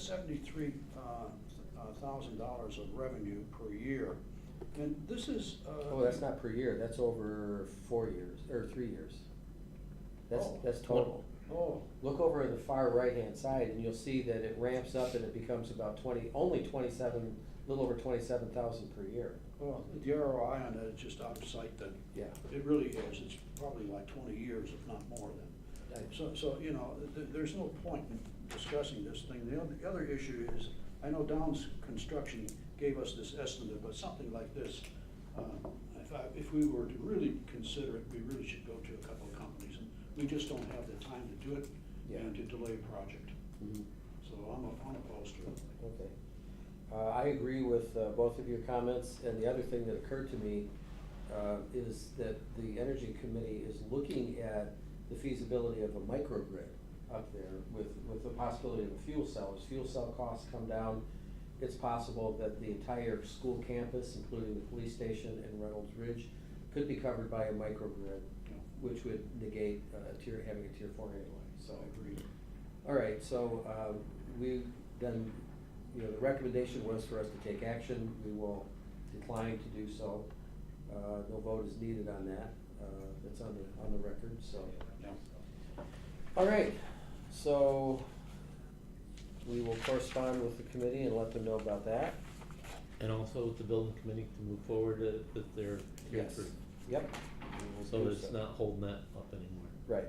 seventy-three uh, thousand dollars of revenue per year. And this is. uh, Oh, that's not per year, that's over four years, or three years. That's, Oh. that's total. Oh, Look over on the far right-hand side and you'll see that it ramps up and it becomes about twenty, only twenty-seven, a little over twenty-seven thousand per year. well, the ROI on that is just out of sight then. Yeah. It really is. It's probably like twenty years, if not more than. I- So, so, you know, th- there's no point in discussing this thing. The other, the other issue is, I know Downs Construction gave us this estimate, but something like this, uh, if I, if we were to really consider it, we really should go to a couple of companies. and We just don't have the time to do it Yeah. and to delay a project. Mhm. So I'm, a- I'm opposed to it. Okay. Uh, I agree with uh, both of your comments, and the other thing that occurred to me uh, is that the Energy Committee is looking at the feasibility of a microgrid up there with, with the possibility of a fuel cell. As fuel cell costs come down, it's possible that the entire school campus, including the police station and Reynolds Ridge, could be covered by a microgrid, Yeah. which would negate uh, tier, having a tier four anyway, so. So I agree. All right, so um, we then, you know, the recommendation was for us to take action. We will decline to do so. Uh, No vote is needed on that. Uh, It's on the, on the record, so. Yeah. All right, so we will correspond with the committee and let them know about that. And also with the building committee to move forward uh, with their tier Yes. three. Yep. we will So do it's not holding that up anymore. Right.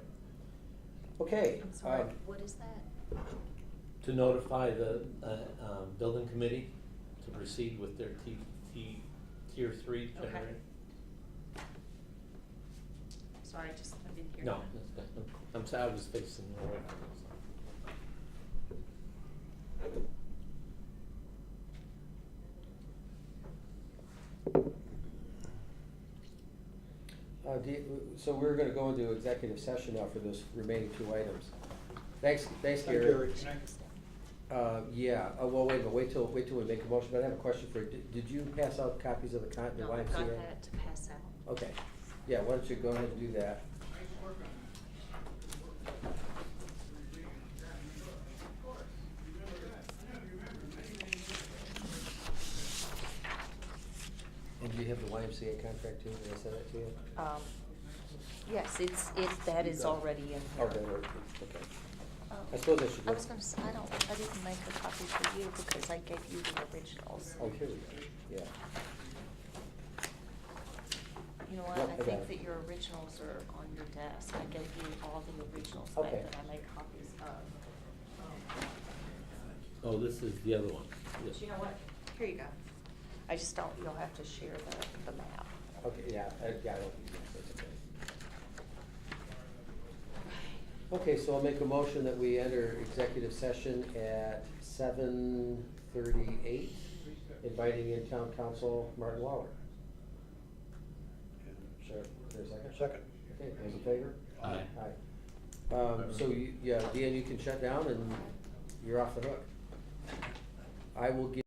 Okay. I'm sorry, um, what is that? To notify the, uh, um, building committee to proceed with their T, T, tier three Okay. generator. Sorry, just, I didn't hear. No, that. that's good. I'm sorry, I was facing the way. Uh, do you- So we're gonna go into executive session now for those remaining two items. Thanks, thanks, Thank you, Gary. Eric. Next. Uh, yeah, uh, well, wait, but wait till, wait till we make a motion, but I have a question for, you. did did you pass out copies of the con, the No, I've YMCA? got that to pass out. Okay, yeah, why don't you go ahead and do that? And do you have the YMCA contract too, did I send that to you? Um, Yes, it's, it, that is already in here. Oh, that worked, okay. Oh. I suppose I should I look. was gonna say, I don't, I didn't make a copy for you because I gave you the originals. Oh, here we go, yeah. You know what, Yep, I I got it. think that your originals are on your desk. I gave you all the originals back Okay. that I made copies Um, of. Oh, this is the other one, yes. But you know what, here you go. I just don't, you'll have to share the, the map. Okay, yeah, I, yeah, I don't think that's okay. Okay, so I'll make a motion that we enter executive session at seven thirty-eight, inviting in town council Martin Lawler. And Sure, there's a second? Second. Okay, those in favor? Aye. Aye. Um, so you, yeah, Dan, you can shut down and you're off the hook. I will give.